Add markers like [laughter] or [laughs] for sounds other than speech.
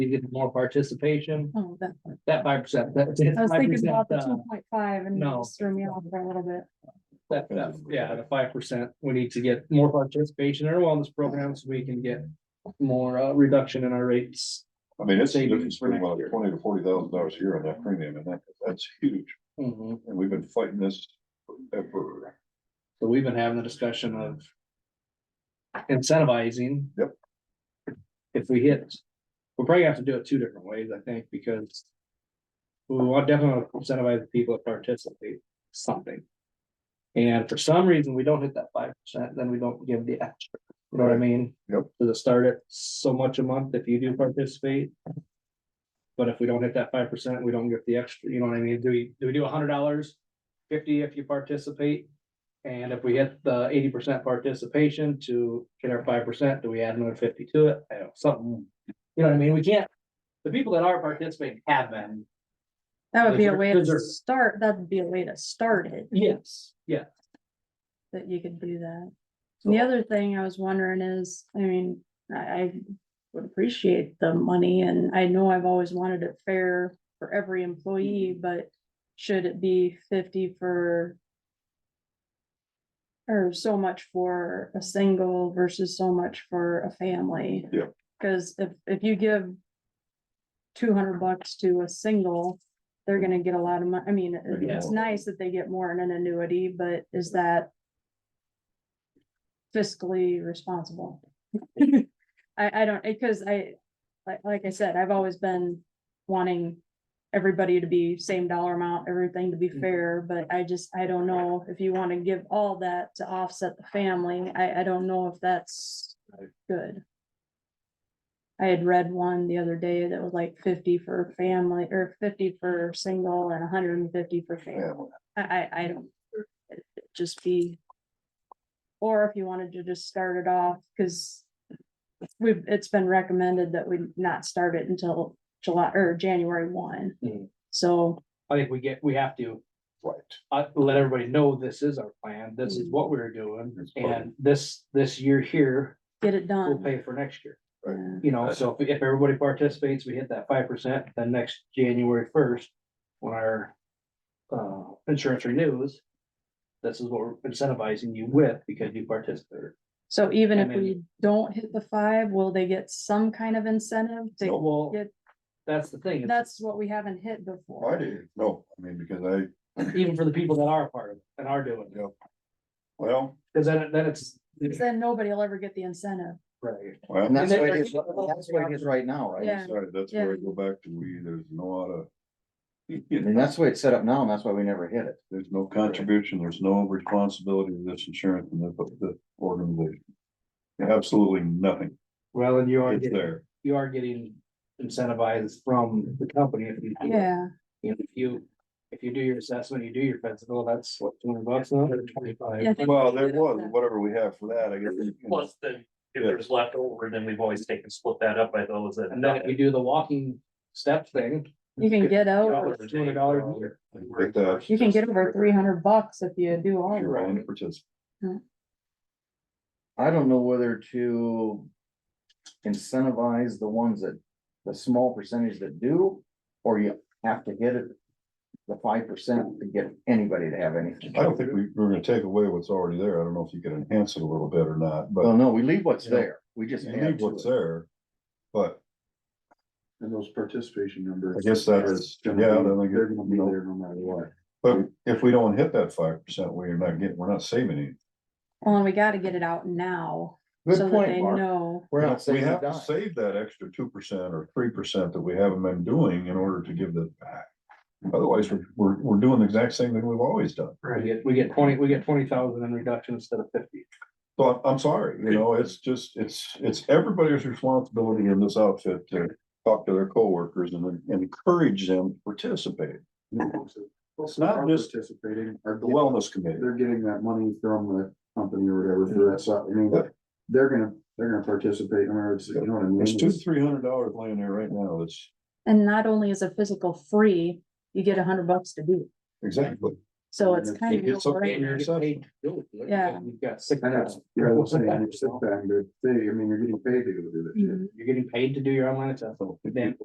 you get more participation, Oh, that part. that five percent, that. I was thinking about the two 5%, uh, point five and no. it just threw me off for a little bit. That, that, yeah, the five percent, we need to get more participation in our wellness programs, so we can get more, uh, reduction in our rates. I mean, it's, Savings it's for been next about year. twenty to forty thousand dollars a year on that premium, and that, that's huge, Mhm. and we've been fighting this forever. So we've been having the discussion of. Incentivizing. Yep. If we hit, we'll probably have to do it two different ways, I think, because. We want definitely want to incentivize the people to participate something. And for some reason, we don't hit that five percent, then we don't give the extra, you know what I mean? Yep. Does it start at so much a month if you do participate? But if we don't hit that five percent, we don't get the extra, you know what I mean? Do we, do we do a hundred dollars? Fifty if you participate? And if we hit the eighty percent participation to get our five percent, do we add another fifty to it? I don't know, something. You know what I mean? We can't, the people that are participating have been. That would be a Those are- way to those are- start, that'd be a way to start it, Yes. Yeah. that you could do that. And The other thing I was wondering is, I mean, I, I would appreciate the money and I know I've always wanted it fair for every employee, but should it be fifty for or so much for a single versus so much for a family? Yeah. Cause if, if you give two hundred bucks to a single, they're gonna get a lot of money. I mean, it- Yeah. it's nice that they get more in an annuity, but is that fiscally responsible? [laughs] I, I don't, because I, like, like I said, I've always been wanting everybody to be same dollar amount, everything to be Mhm. fair, but I just, I don't know if you wanna give all that to offset the family, I, I don't know if that's Right. good. I had read one the other day that was like fifty for family, or fifty for single and hundred and fifty for family, Family. I, I, I don't, it- it just be. Or if you wanted to just start it off, cause we've, it's been recommended that we not start it until July, or January one. Mhm. So I think we get, we have to, Right. uh, let everybody know this is our plan, this is what we're doing, It's part of- and this, this year here, get it we'll done. pay for next year. Yeah. You know, so if, if everybody participates, we hit that five percent, then next January first, when our. Uh, insurance renews. This is what we're incentivizing you with because you participated. So even if And then- we don't hit the five, will they get some kind of incentive to, Nope. Well, Good. that's the thing, it's that's what we haven't hit I before. did, no, I mean, because I, even for the people that are a part of it and are doing it, well, because then, it- then it's. 'Cause Then nobody will ever get the incentive. Right. well, And that's And what then- it is, that's what it is right now, right? Yeah. sorry, that's where I go back to, we, there's no out of. You know, And that's the way it's set up now, and that's why we never hit it. there's no contribution, there's no responsibility to this insurance and the, the organization. Absolutely nothing, Well, and you are it's getting there, you are getting incentivized from the company if you. do it. Yeah, You know, If you, if you do your assessment, you do your fence bill, that's what, two hundred bucks now, or twenty-five? Yeah. well, there was, whatever we have for that, I guess. you know. Plus, then, if Yeah. there's left over, then we've always taken, split that up by those that. And then if you do the walking step thing. you can get over, Dollars. Two hundred dollars a year. Like that. you can get over three hundred bucks if you do all You're that. willing to participate. I don't know whether to incentivize the ones that, the small percentage that do, or you have to hit it. The five percent to get anybody to have anything. I don't think we, we're gonna take away what's already there, I don't know if you can enhance it a little bit or not, but. Well, no, we leave what's You know, there, we just You need add what's to it. there, but And those participation numbers. I guess that is, yeah, then I They're guess, gonna you be know, there no matter what. but if we don't hit that five percent, we're not getting, we're not saving any. Well, and we gotta get it out now, so Good that they point, Mark. know, We're not We saying have to die. save that extra two percent or three percent that we haven't been doing in order to give that back. Otherwise, we're, we're, we're doing the exact same thing we've always done. We get, we get twenty, we get twenty thousand in reduction instead of fifty. So I'm, I'm sorry, you know, it's just, it's, it's everybody's responsibility in this outfit to talk to their coworkers and then encourage them to participate. It's not just- Participating, The are, well, wellness committee, they're getting that money from the company or whatever for that, so, I mean, Yeah. they're gonna, they're gonna participate, I mean, it's, you know what I mean? there's two, It's- three hundred dollars laying there right now, it's and not only is a physical free, you get a hundred bucks to do. it. exactly. So it's If kind of. it's no okay, brainer. you're- paid to do it. Look at Yeah. it. You've got six. And that's, yeah, I was saying, you're sick time, but they, I mean, you're getting paid to go do that shit. Mhm. You're getting paid to do your online assessment. Then